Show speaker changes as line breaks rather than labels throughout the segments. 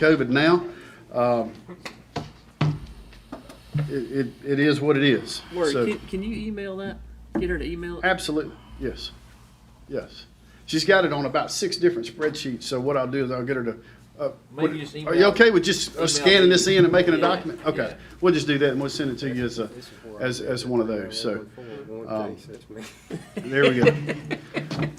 COVID now. Um, It, it, it is what it is.
Lori,
So-
can, can you email that? Get her to email it?
Absolutely, yes, yes. She's got it on about six different spreadsheets, so what I'll do is I'll get her to. uh,
Maybe just email-
Are you okay with just uh,
email
scanning this
it.
in and making a
Yeah,
document? Okay,
yeah.
we'll just do that and we'll send it to you as a,
This is where I-
as, as one of those, so, um,
One case, that's me.
there we go.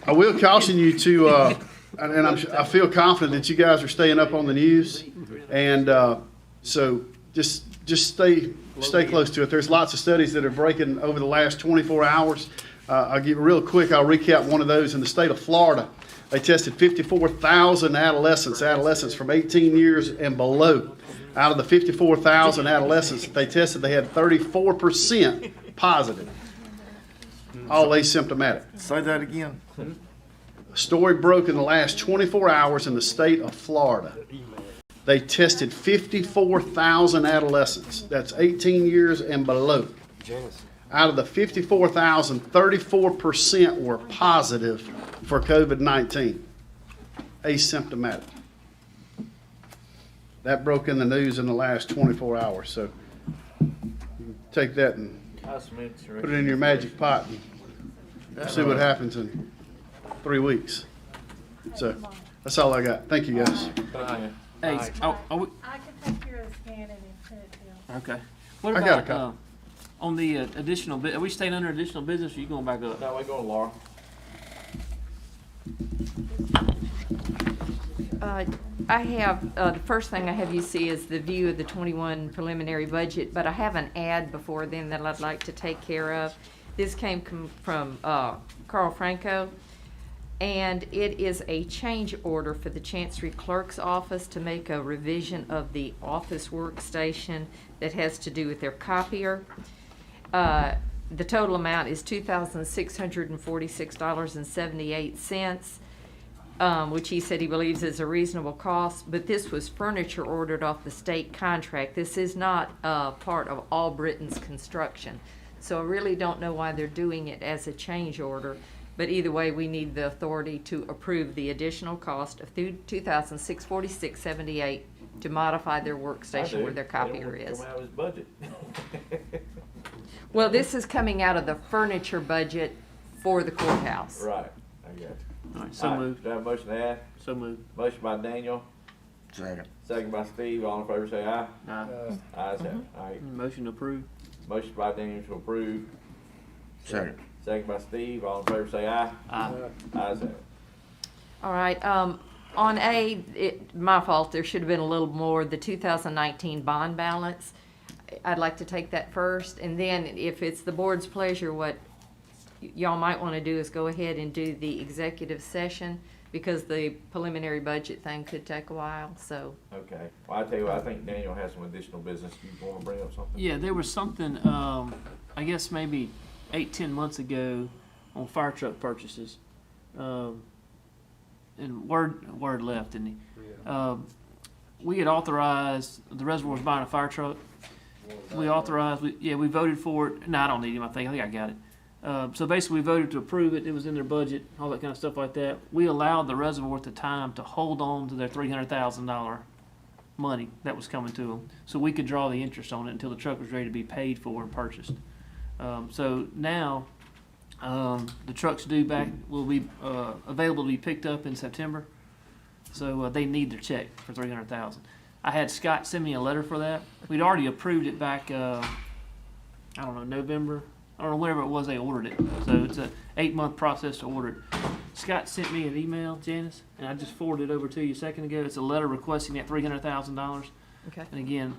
I will caution you to, uh, and and I'm, su- I feel confident that you guys are staying up on the news. And, uh, so just, just stay, stay close to it. There's lots of studies that are breaking over the last twenty-four hours. Uh, I'll give, real quick, I'll recap one of those. In the state of Florida, they tested fifty-four thousand adolescents, adolescents from eighteen years and below. Out of the fifty-four thousand adolescents that they tested, they had thirty-four percent positive, all asymptomatic.
Say that again.
A story broke in the last 24 hours in the state of Florida. They tested 54,000 adolescents. That's 18 years and below.
Janice.
Out of the 54,000, 34% were positive for COVID 19, asymptomatic. That broke in the news in the last 24 hours. So you take that and put it in your magic pot and see what happens in three weeks. So that's all I got. Thank you, guys.
Hey, oh, are we,
I can take your scan and print it down.
okay. What
I got a
about, uh,
copy.
on the uh, additional, bu- are we staying under additional business or you going back up?
No, we go to Laura.
Uh, I have, uh, the first thing I have you see is the view of the 21 preliminary budget, but I have an ad before then that I'd like to take care of. This came com- from uh, Carl Franco, and it is a change order for the Chancery Clerk's Office to make a revision of the office workstation that has to do with their copier. Uh, The total amount is $2,646.78 um, which he said he believes is a reasonable cost, but this was furniture ordered off the state contract. This is not, uh, part of All Britain's construction. So I really don't know why they're doing it as a change order, but either way, we need the authority to approve the additional cost of two thousand six forty-six seventy-eight to modify their workstation where their copier is.
Come out of his budget.
Well, this is coming out of the furniture budget for the courthouse.
Right, I got you.
All right, so
All right,
moved,
Do I have a motion to add?
so moved.
Motion by Daniel,
Second.
second by Steve, all in favor say aye.
Aye.
Uh,
Ayes have
Mm-hmm.
it. All right,
Motion approved.
motion by Daniel to approve,
Second.
second by Steve, all in favor say aye.
Aye.
Ayes have it.
All right, um, on A, it, my fault, there should have been a little more, the two thousand nineteen bond balance. I'd like to take that first, and then if it's the board's pleasure, what y- y'all might wanna do is go ahead and do the executive session, because the preliminary budget thing could take a while, so.
Okay, well, I tell you what, I think Daniel has some additional business, you wanna bring up something?
Yeah, there was something, um, I guess maybe eight, ten months ago on fire truck purchases. Um, and word, word left, didn't he? Um, we had authorized, the reservoir's buying a fire truck. We authorized, we, yeah, we voted for it. No, I don't need him, I think, I think I got it. Uh, so basically, we voted to approve it, it was in their budget, all that kind of stuff like that. We allowed the reservoir at the time to hold on to their three hundred thousand dollar money that was coming to them, so we could draw the interest on it until the truck was ready to be paid for and purchased. Um, so now, um, the trucks due back will be uh, available to be picked up in September. So uh, they need their check for three hundred thousand. I had Scott send me a letter for that. We'd already approved it back. Uh, I don't know November. I don't know whatever it was they ordered it. So it's a eight month process to order it. Scott sent me an email, Janice, and I just forwarded it over to you a second ago. It's a letter requesting that three hundred thousand dollars.
Okay.
And again,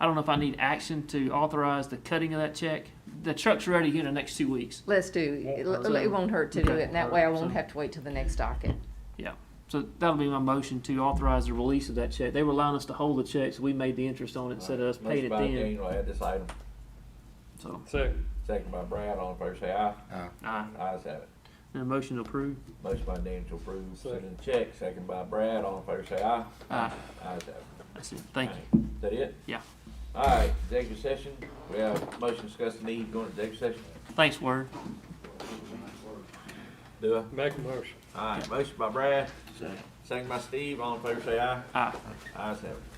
I don't know if I need action to authorize the cutting of that check. The truck's ready here in the next two weeks.
Let's do, it
Won't hurt.
it won't hurt to do it, and that way I won't
So-
have to wait till the next docket.
So that'll be my motion to authorize the release of that check. They were allowing us to hold the check, so we made the interest on it instead of us paying it
Motion by
then.
Daniel, add this item,
So,
second by Brad, all in favor say aye.
aye.
Ayes have it.
And a motion to approve.
Motion by Daniel to approve, sending the check, second by Brad, all in favor say aye.
Aye.
Ayes have it.
That's it. Thank you.
Alright, Is that it?
Yeah.
All right, executive session, we have a motion to discuss the need going to executive session.
Thanks, Word.
Do
Make a motion.
I? All right, motion by Brad, Second by Steve, all in favor say aye.
Aye.
Ayes have it.